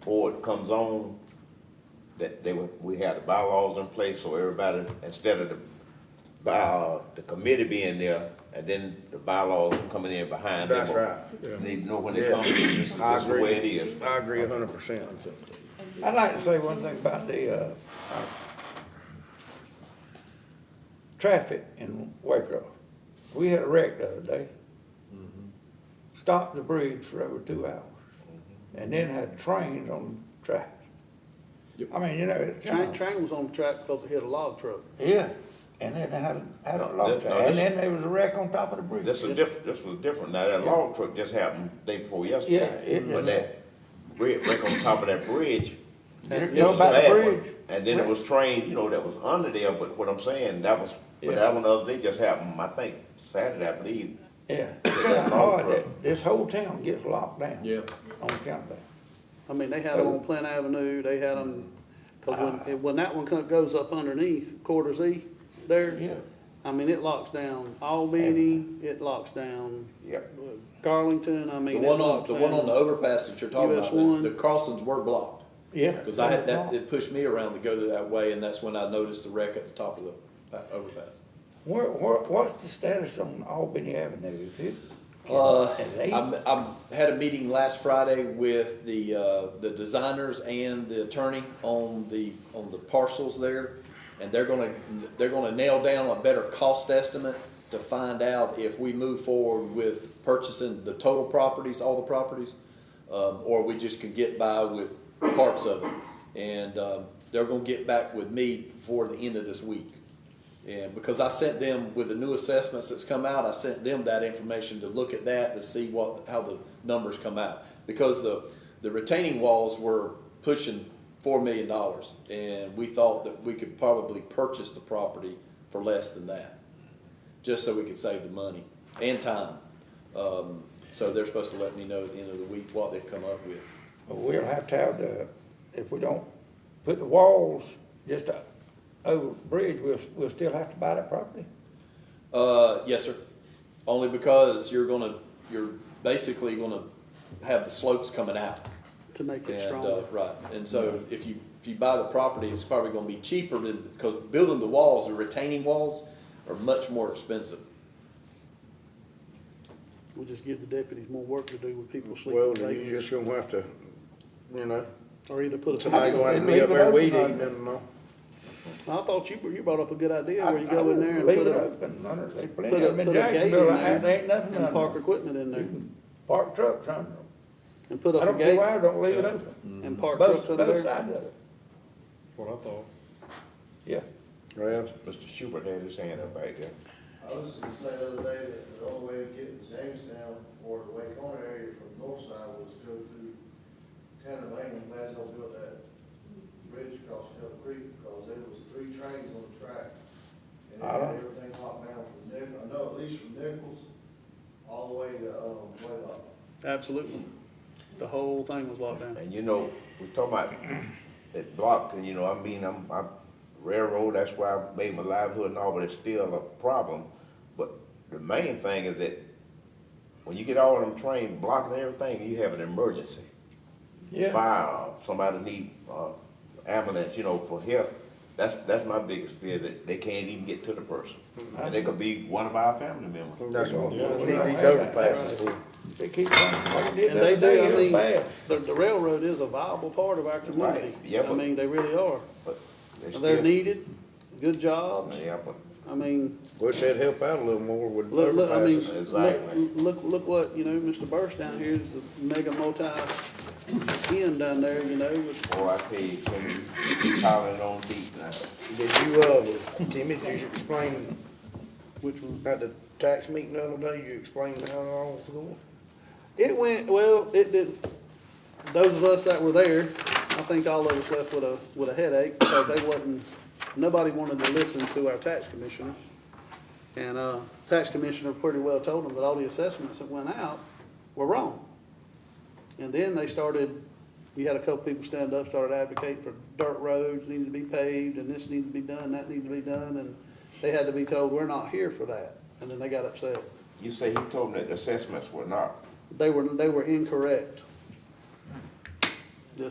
before it comes on, that they, were- we had the bylaws in place, so everybody, instead of the, by, uh, the committee being there, and then the bylaws coming in behind them. That's right. They know when they Yeah. come, this I this is the agree. way it is. I agree a hundred percent. I'd like to say one thing about the, uh, uh, traffic in Waco. We had a wreck the other day. Mm-hmm. Stopped the bridge for over two hours, Mm-hmm. and then had trains on the tracks. I mean, you know, it's Train, kinda- train was on the track because it hit a log truck. yeah, and then they had, a- had a No, lot that- of, no, tra- and this- then there was a wreck on top of the bridge. This is diff, this was different, now that log truck just happened day before Yeah, yesterday, it- but that, right, right on top of that bridge. You this know is about the bad one. bridge? And then it was train, you know, that was under there, but what I'm saying, that was, but Yeah. that one the other day just happened, I think, Saturday, I believe. Yeah, it's kinda hard that this whole town gets locked down. Yeah. On account of that. I mean, they had them on Plant Avenue, they had them, because Ah. when, when that one co- goes up underneath quarter Z there. Yeah. I mean, it locks down Albany, it locks down uh, Yep. Garlington, I mean. The it one on, locks the one on the down- overpass that you're talking US one. about, the- the crossings were blocked. Yeah. Cause I had that, it pushed me around to go that way and that's when I noticed the wreck at the top of the uh, overpass. Where, where, what's the status on Albany Avenue? Is it? Uh, Is it eight? I'm, I'm, had a meeting last Friday with the, uh, the designers and the attorney on the, on the parcels there. And they're gonna, they're gonna nail down a better cost estimate to find out if we move forward with purchasing the total properties, all the properties. Um, or we just can get by with parts of it. And, um, they're gonna get back with me before the end of this week. And because I sent them with the new assessments that's come out, I sent them that information to look at that to see what, how the numbers come out. Because the, the retaining walls were pushing four million dollars and we thought that we could probably purchase the property for less than that. Just so we could save the money and time. Um, so they're supposed to let me know at the end of the week what they've come up with. But We'll have to have the, if we don't put the walls just o- over the bridge, we'll, we'll still have to buy the property? Uh, yes, sir. Only because you're gonna, you're basically gonna have the slopes coming out. To make it And, stronger. uh, right, and so if you, if you buy the property, it's probably gonna be cheaper than, because building the walls, the retaining walls are much more expensive. We'll just give the deputies more work to do with people Well, sleeping. then late, you just gonna have to, you know, Or either put a. somebody fence gonna on it. have to be up there weed Leave it eating and all. I thought you, you brought up a good idea I- where you I go in would there and leave put it a, open, under, they plenty put of a, them in put a gate in Jacksonville, I- there. there ain't nothing And under park them. equipment in You there Mm-hmm. can Park trucks under them. and put I up a don't see gate why, I don't leave it open. and park Both, trucks both under there. sides of it, what I thought. yeah. Well, Mr. Schubert had his hand up right there. I was just gonna say the other day that the only way to get to Jamestown or the Lake Ona area from the north side was to go through town of Lane, I'm glad y'all built that bridge across Cut Creek, because there was three trains on the track. And it I don't- had everything locked down from Nichols, I know at least from Nichols, all the way to, um, Waylock. Absolutely. The whole thing was locked down. And you know, we talking about that block, and you know, I mean, I'm, I'm railroad, that's why I made my livelihood and all, but it's still a problem. But the main thing is that when you get all of them trains blocking everything, you have an emergency. Yeah, Fire, somebody need, uh, ambulance, you know, for health. That's, that's my biggest fear, that they can't even get to the person. And they could be one of our family members. that's what, Yeah. that's what these overpasses for. they keep running, like they did And the they other day, do, it I was mean, bad. the, the railroad is a viable part of our community. yeah, I but- mean, they really are. But They're still- needed, good jobs. Yeah, but I mean, Wish they'd help out a little more with look, look, I mean, overpasses. exactly. look, look, look what, you know, Mr. Burst down here is the mega multi end down there, you know, with- Boy, I tell you, Timmy, you piling on deep now. Did you, uh, Timmy, did you explain which one. at the tax meeting the other day, you explained how it all was going? It went, well, it did, those of us that were there, I think all of us left with a, with a headache because they wasn't, nobody wanted to listen to our tax commissioner. And, uh, tax commissioner pretty well told them that all the assessments that went out were wrong. And then they started, we had a couple people stand up, started advocating for dirt roads needed to be paved and this needed to be done, that needed to be done. And they had to be told, we're not here for that. And then they got upset. You say he told me that the assessments were not. They were, they were incorrect.